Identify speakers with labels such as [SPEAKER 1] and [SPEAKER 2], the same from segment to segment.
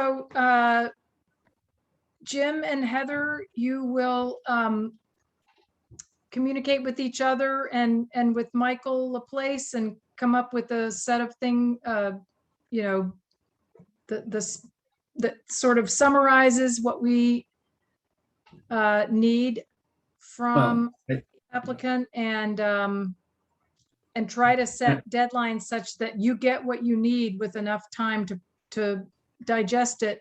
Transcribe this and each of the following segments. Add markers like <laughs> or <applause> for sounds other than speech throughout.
[SPEAKER 1] So, uh, Jim and Heather, you will, um, communicate with each other and, and with Michael Laplace and come up with a set of thing, uh, you know, the, this, that sort of summarizes what we, uh, need from
[SPEAKER 2] I-
[SPEAKER 1] applicant and, um, and try to set deadlines such that you get what you need with enough time to, to digest it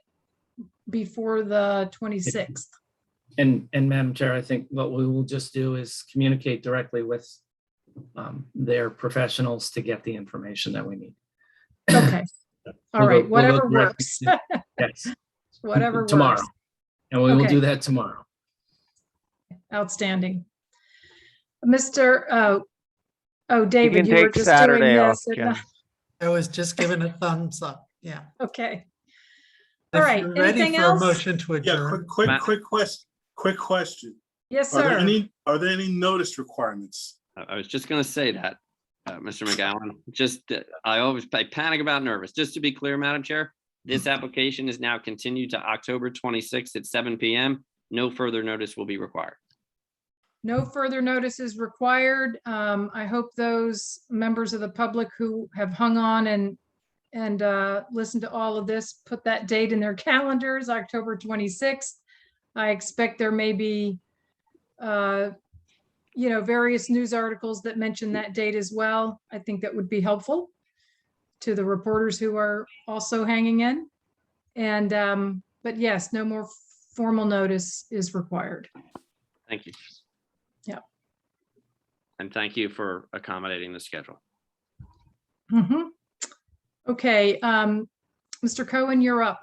[SPEAKER 1] before the 26th.
[SPEAKER 2] And, and Madam Chair, I think what we will just do is communicate directly with um, their professionals to get the information that we need. <coughs>
[SPEAKER 1] Okay. All
[SPEAKER 2] We'll go-
[SPEAKER 1] right,
[SPEAKER 2] we'll go
[SPEAKER 1] whatever
[SPEAKER 2] directly
[SPEAKER 1] works,
[SPEAKER 2] to- Yes,
[SPEAKER 1] whatever
[SPEAKER 2] Tomorrow.
[SPEAKER 1] works.
[SPEAKER 2] And we will
[SPEAKER 1] Okay.
[SPEAKER 2] do that tomorrow.
[SPEAKER 1] Outstanding. Mr. Oh, oh,
[SPEAKER 3] You
[SPEAKER 1] David,
[SPEAKER 3] can
[SPEAKER 1] you were
[SPEAKER 3] take
[SPEAKER 1] just doing
[SPEAKER 3] Saturday off,
[SPEAKER 1] this. and-
[SPEAKER 3] Jen.
[SPEAKER 4] I was just given a thumbs up, yeah.
[SPEAKER 1] <laughs> Okay. All
[SPEAKER 4] If
[SPEAKER 1] right,
[SPEAKER 4] you're ready
[SPEAKER 1] anything
[SPEAKER 4] for a
[SPEAKER 1] else?
[SPEAKER 4] Motion to
[SPEAKER 5] Yeah,
[SPEAKER 4] adjourn.
[SPEAKER 5] quick, quick,
[SPEAKER 3] Matt.
[SPEAKER 5] quick question, quick question.
[SPEAKER 1] Yes,
[SPEAKER 5] Are there
[SPEAKER 1] sir.
[SPEAKER 5] any, are there any notice requirements?
[SPEAKER 6] I I was just gonna say that, uh, Mr. McGowan, just, that I always I panic about nervous. Just to be clear, Madam Chair, this application is now continued to October twenty-sixth at seven PM. No further notice will be required.
[SPEAKER 1] No further notice is required. Um, I hope those members of the public who have hung on and, and, uh, listened to all of this, put that date in their <laughs> calendars, October 26th. I expect there may be, uh, you know, various news articles that mention that date as well. I think that would be helpful to the reporters who are also hanging in. And, um, but yes, no more formal notice is required.
[SPEAKER 6] Thank you.
[SPEAKER 1] Yep.
[SPEAKER 6] And thank you for accommodating the schedule.
[SPEAKER 1] Mhm. Okay, um, Mr. Cohen, you're up.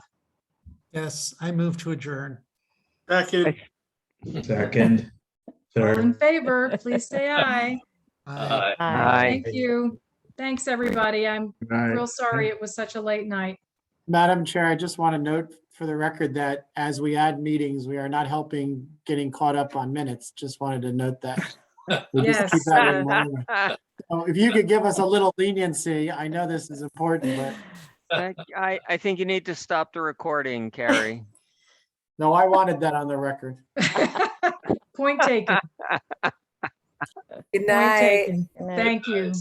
[SPEAKER 4] Yes, I move to adjourn.
[SPEAKER 5] Second,
[SPEAKER 3] I-
[SPEAKER 7] Second,
[SPEAKER 1] All in
[SPEAKER 7] third,
[SPEAKER 1] favor, please say aye.
[SPEAKER 4] Aye.
[SPEAKER 5] Uh,
[SPEAKER 3] Aye.
[SPEAKER 1] Thank you. Thanks, everybody. I'm real sorry it was such a late night. <laughs>
[SPEAKER 8] Madam Chair, I just want to note for the record that as we add meetings, we are not helping getting caught up on minutes. Just wanted to note
[SPEAKER 5] <laughs>
[SPEAKER 8] that. We just keep
[SPEAKER 1] Yes,
[SPEAKER 8] that in
[SPEAKER 1] uh,
[SPEAKER 8] mind.
[SPEAKER 1] <laughs>
[SPEAKER 8] So If you could give us a little leniency, I know this is important, but
[SPEAKER 3] Thank- I, I think you need to stop the recording, Carrie.
[SPEAKER 8] no, I wanted that on the record.
[SPEAKER 1] Point taken.
[SPEAKER 9] Good
[SPEAKER 1] Point
[SPEAKER 9] night.
[SPEAKER 1] taken. Thank you.